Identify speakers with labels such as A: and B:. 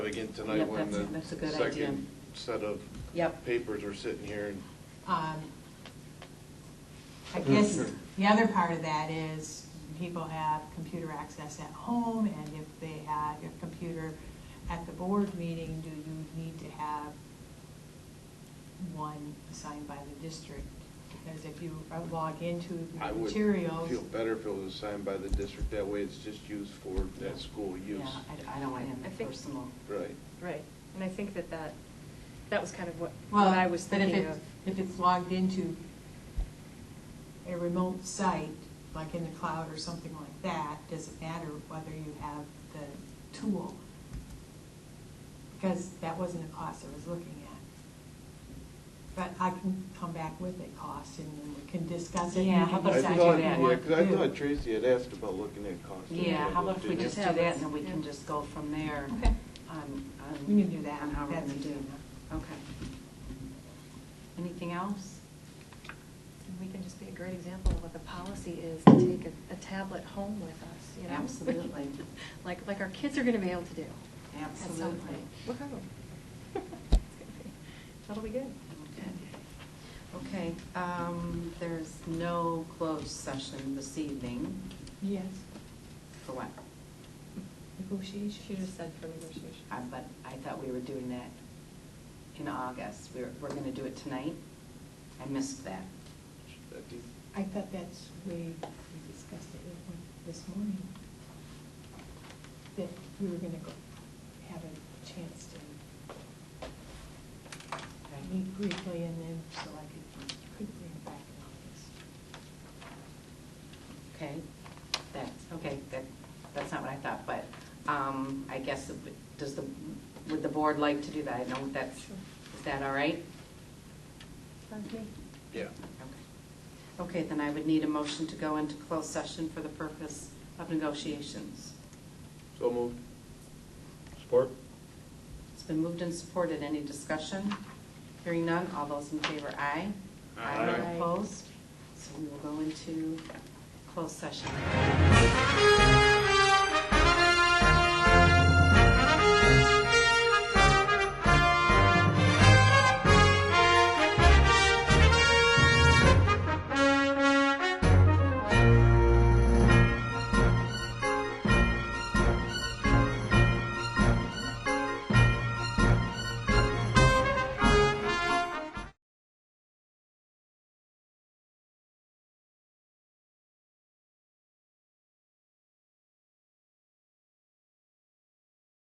A: again
B: Yeah,
A: tonight when
B: that's-
A: the
B: that's a good idea.
A: second set of
B: Yep.
A: papers are sitting here and
C: Um, I
A: Mm,
C: guess the other part of that is people have computer access at home, and if they have a computer at the board meeting, do you need to have one assigned by the district? Because if you uh, log into
A: I
C: the
A: would
C: materials.
A: feel better if it was assigned by the district. That way it's just used for that school use.
C: Yeah, I I don't want him
B: I think-
C: personal.
A: Right.
B: Right, and I think that that, that was kind of what,
C: Well,
B: what I was
C: but if
B: thinking
C: it-
B: of.
C: If it's logged into a remote site, like in the cloud or something like that, doesn't matter whether you have the tool. Because that wasn't a cost I was looking at. But I can come back with a cost and then we can discuss it. and
D: Yeah,
C: we
D: how
C: can
D: about
A: I
D: if I
C: decide
D: do
A: thought-
C: what
D: that?
C: we
A: Yeah,
C: want
A: 'cause I
C: to do.
A: thought Tracy had asked about looking at cost.
D: Yeah, how about if we just do that and then we can
B: Yeah.
D: just go from there? Um,
C: Okay.
D: On, on.
C: We can do that.
D: On how we're
C: That's
D: gonna do.
C: easy
D: Okay. Anything else?
B: And We can just be a great example of what the policy is, to take a- a tablet home with us, you know?
D: Absolutely.
B: Like, like our kids are gonna be able to do. at some
D: Absolutely.
B: point. Woohoo. It's gonna be- That'll be good.
D: Okay, um, there's no closed session this evening.
C: Yes,
D: For what?
B: Negotiation. She just said for negotiation.
D: Uh, But I thought we were doing that in August. We're, we're gonna do it tonight. I missed that.
A: I think-
C: I thought that's where we discussed it this morning. That we were gonna go have a chance to meet briefly and then so I could, could bring it back in August.
D: Okay, that's, okay, that, that's not what I thought, but, um, I guess, it would- does the, would the board like to do that? I know that's,
B: Sure.
D: is that all right?
B: Sounds me.
A: Yeah.
D: Okay. Okay, then I would need a motion to go into closed session for the purpose of negotiations.
A: So moved. Support?
D: It's been moved and supported, any discussion? Hearing none, all those in favor, aye.
A: Aye.
D: Opposed? So we will go into closed session.